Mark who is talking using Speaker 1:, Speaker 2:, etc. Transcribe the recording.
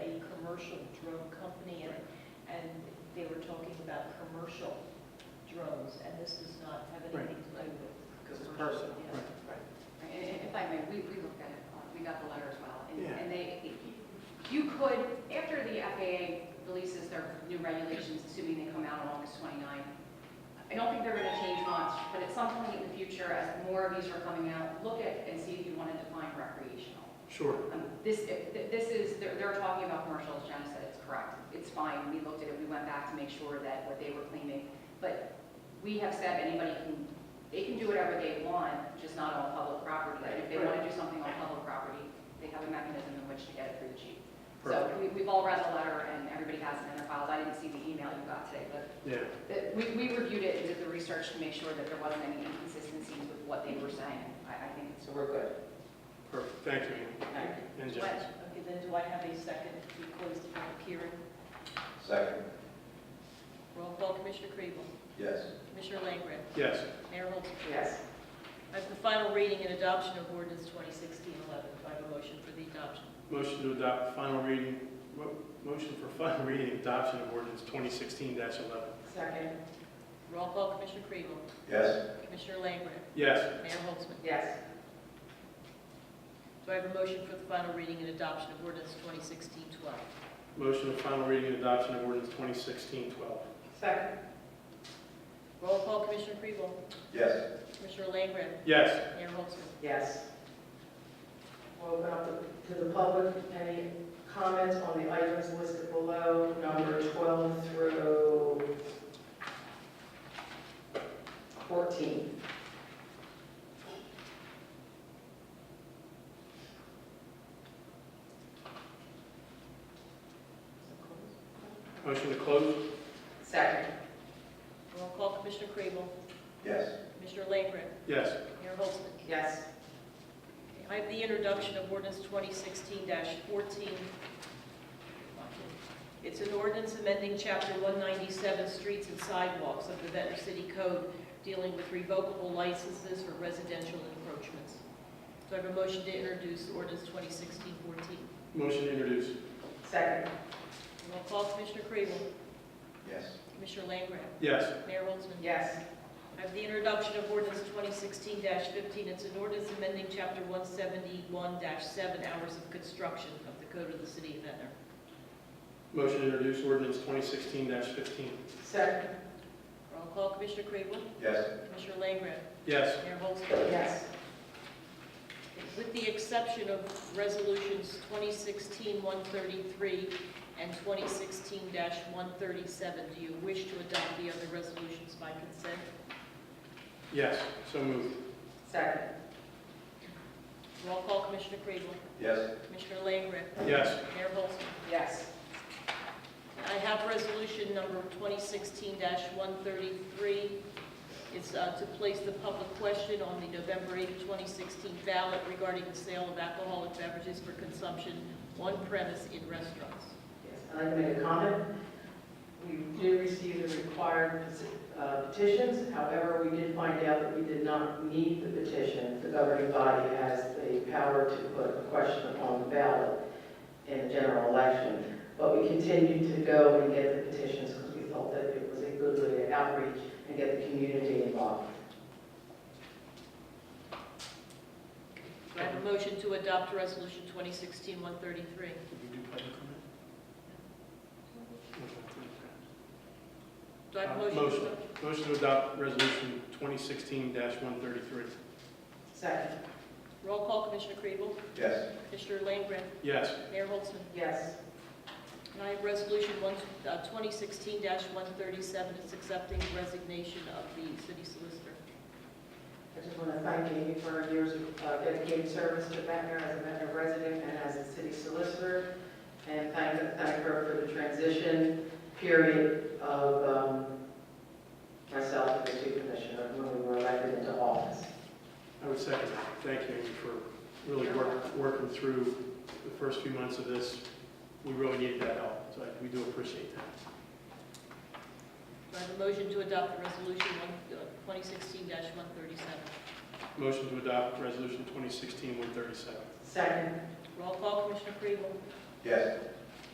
Speaker 1: drone company, and, and they were talking about commercial drones, and this does not have anything to do with.
Speaker 2: Because it's
Speaker 1: commercial,
Speaker 2: personal,
Speaker 1: yeah.
Speaker 2: right.
Speaker 3: Right, and- and If I may, we, we looked at it, uh, we got the letter as well. and-
Speaker 2: Yeah.
Speaker 3: And they, you could, after the FAA releases their new regulations, assuming they come out on August 29, I don't think they're going to change much, but at some point in the future, as more of these are coming out, look at and see if you want to define recreational.
Speaker 2: Sure.
Speaker 3: Um, This, this is, they're, they're talking about commercial, as Jenna said, it's correct. It's fine, we looked at it, we went back to make sure that what they were claiming. But we have said anybody can, they can do whatever they want, just not on public property. And if they want to do something on public property, they have a mechanism in which to get it through the chief. So
Speaker 2: Perfect.
Speaker 3: we, we've all read the letter and everybody has it in their files. I didn't see the email you got today, but
Speaker 2: Yeah,
Speaker 3: that we, we reviewed it and did the research to make sure that there wasn't any inconsistencies with what they were saying. I, I think it's
Speaker 4: So we're good.
Speaker 2: perfect. Thank you, Amy.
Speaker 4: Thank you.
Speaker 2: And Jen.
Speaker 1: Okay, then do I have a second to close the public hearing?
Speaker 4: Second.
Speaker 1: Roll call, Commissioner Crevel.
Speaker 4: Yes.
Speaker 1: Commissioner Langren.
Speaker 2: Yes,
Speaker 1: Mayor Holtzman.
Speaker 4: Yes.
Speaker 1: As the final reading and adoption of ordinance 2016-11, do I have a motion for the adoption?
Speaker 2: motion to adopt final reading, mo- motion for final reading adoption of ordinance 2016-11.
Speaker 4: Second.
Speaker 1: Roll call, Commissioner Crevel.
Speaker 4: Yes.
Speaker 1: Commissioner Langren.
Speaker 2: Yes,
Speaker 1: Mayor Holtzman.
Speaker 4: Yes.
Speaker 1: Do I have a motion for the final reading and adoption of ordinance 2016-12?
Speaker 2: motion for final reading and adoption of ordinance 2016-12.
Speaker 4: Second.
Speaker 1: Roll call, Commissioner Crevel.
Speaker 4: Yes.
Speaker 1: Commissioner Langren.
Speaker 2: Yes,
Speaker 1: Mayor Holtzman.
Speaker 5: Yes. We'll open up the- to the public. Any comments on the items listed below, number 12 through 14?
Speaker 2: motion to close.
Speaker 5: Second.
Speaker 1: Roll call, Commissioner Crevel.
Speaker 4: Yes.
Speaker 1: Commissioner Langren.
Speaker 2: Yes,
Speaker 1: Mayor Holtzman.
Speaker 5: Yes.
Speaker 1: I have the introduction of ordinance 2016-14. It's an ordinance amending Chapter 197, Streets and Sidewalks of the Ventnor City Code dealing with revocable licenses for residential encroachments. Do I have a motion to introduce ordinance 2016-14?
Speaker 2: motion to introduce.
Speaker 5: Second.
Speaker 1: Roll call, Commissioner Crevel.
Speaker 4: Yes.
Speaker 1: Commissioner Langgraf.
Speaker 2: Yes,
Speaker 1: Mayor Holtzman.
Speaker 5: Yes.
Speaker 1: I have the introduction of ordinance 2016-15. It's an ordinance amending Chapter 171-7, Hours of Construction of the Code of the City of Ventnor.
Speaker 2: motion to introduce ordinance 2016-15.
Speaker 5: Second.
Speaker 1: Roll call, Commissioner Crevel.
Speaker 4: Yes.
Speaker 1: Commissioner Langren.
Speaker 2: Yes,
Speaker 1: Mayor Holtzman.
Speaker 5: Yes.
Speaker 1: With the exception of resolutions 2016-133 and 2016-137, do you wish to adopt the other resolutions by consent?
Speaker 2: yes, so moved.
Speaker 5: Second.
Speaker 1: Roll call, Commissioner Crevel.
Speaker 4: Yes.
Speaker 1: Commissioner Langren.
Speaker 2: Yes,
Speaker 1: Mayor Holtzman.
Speaker 5: Yes.
Speaker 1: I have resolution number 2016-133. It's uh, to place the public question on the November 8, 2016 ballot regarding the sale of alcoholic beverages for consumption on premise in restaurants.
Speaker 5: Yes, I'd like to make a comment. We did receive the required uh, petitions, however, we did find out that we did not need the petition. The governing body has the power to put a question upon the ballot in a general election. But we continued to go and get the petitions because we thought that it was a good way to outreach and get the community involved.
Speaker 1: Do I have a motion to adopt resolution 2016-133?
Speaker 2: Did we do public comment?
Speaker 1: Do I have a
Speaker 2: Uh,
Speaker 1: motion? to
Speaker 2: motion.
Speaker 1: adopt?
Speaker 2: Motion to adopt resolution 2016-133.
Speaker 5: Second.
Speaker 1: Roll call, Commissioner Crevel.
Speaker 4: Yes.
Speaker 1: Commissioner Langren.
Speaker 2: Yes,
Speaker 1: Mayor Holtzman.
Speaker 5: Yes.
Speaker 1: And I have resolution one- uh, 2016-137. It's accepting resignation of the city solicitor.
Speaker 5: I just want to thank Amy for her years of uh, dedicated service to Ventnor as a Ventnor resident and as a city solicitor, and thank, thank her for the transition period of um, myself and the two commissioner when we were elected into office.
Speaker 2: I would second that. Thank you Amy, for really work- working through the first few months of this. We really needed that help, so I- we do appreciate that.
Speaker 1: Do I have a motion to adopt the resolution one- uh, 2016-137?
Speaker 2: Motion to adopt resolution 2016-137.
Speaker 5: Second.
Speaker 1: Roll call, Commissioner Crevel.
Speaker 4: Yes.